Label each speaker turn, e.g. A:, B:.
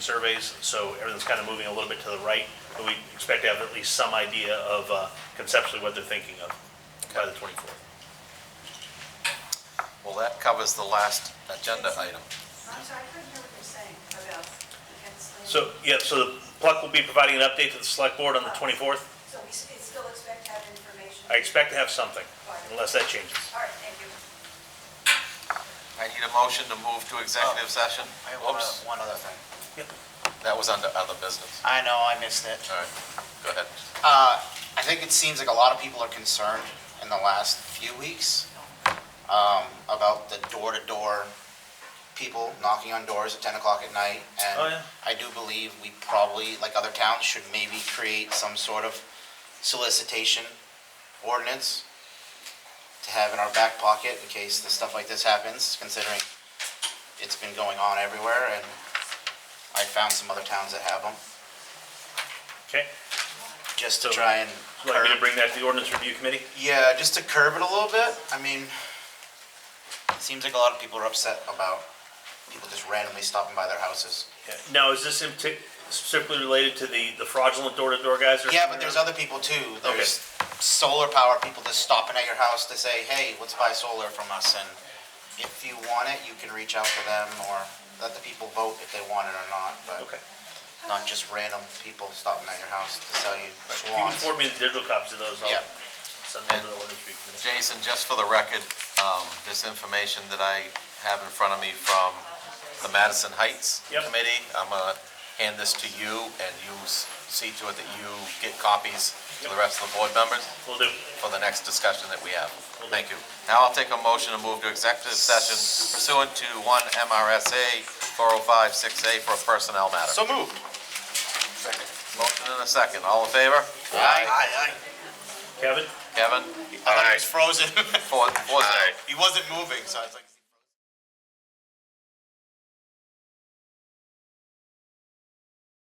A: surveys, so everything's kind of moving a little bit to the right, but we expect to have at least some idea of uh, conceptually what they're thinking of by the 24th.
B: Well, that covers the last agenda item.
C: I'm sorry, I couldn't hear what you're saying about the cancellation.
A: So, yeah, so the Pluck will be providing an update to the select board on the 24th.
C: So we s- it's still expect to have information?
A: I expect to have something, unless that changes.
C: All right, thank you.
B: I need a motion to move to executive session.
D: Oh, I have uh, one
B: Whoops,
D: other- one other thing.
B: that was under other business.
D: I know, I missed it.
B: All right, go ahead.
D: Uh, I think it seems like a lot of people are concerned in the last few weeks um, about the door-to-door people knocking on doors at 10 o'clock at night.
A: Oh, yeah.
D: And I do believe we probably, like other towns, should maybe create some sort of solicitation ordinance to have in our back pocket in case the stuff like this happens, considering it's been going on everywhere, and I found some other towns that have them,
A: Okay?
D: just to
A: So-
D: try and
A: Would you like me to
D: curb
A: bring that to the ordinance review committee?
D: Yeah, just to curb it a little bit. I mean, it seems like a lot of people are upset about people just randomly stopping by their houses.
A: Yeah. Now, is this in partic- specifically related to the the fraudulent door-to-door guys? or
D: Yeah,
A: something?
D: but there's other people too. There's solar power people just stopping at your house to say, hey, let's buy solar from us. And if you want it, you can reach out to them or let the people vote if they want it or not. But
A: Okay.
D: not just random people stopping at your house to sell you
A: If you can
D: swans.
A: forward me the digital copies of those, I'll
D: Yeah.
A: send them to the ordinance review committee.
B: Jason, just for the record, um, this information that I have in front of me from the Madison Heights
A: Yep.
B: Committee, I'm gonna hand this to you, and you s- see to it that you get copies to the rest of the board members
A: Will do.
B: for the next discussion that we have. Thank you. Now I'll take a motion to move to executive session pursuant to one MRSA 4056A for oh a personnel matter.
D: So moved.
B: Motion and a second. All in favor?
D: Aye.
A: Kevin?
B: Kevin?
D: I thought he was frozen.
B: Four, four zero.
D: He wasn't moving, so I was like.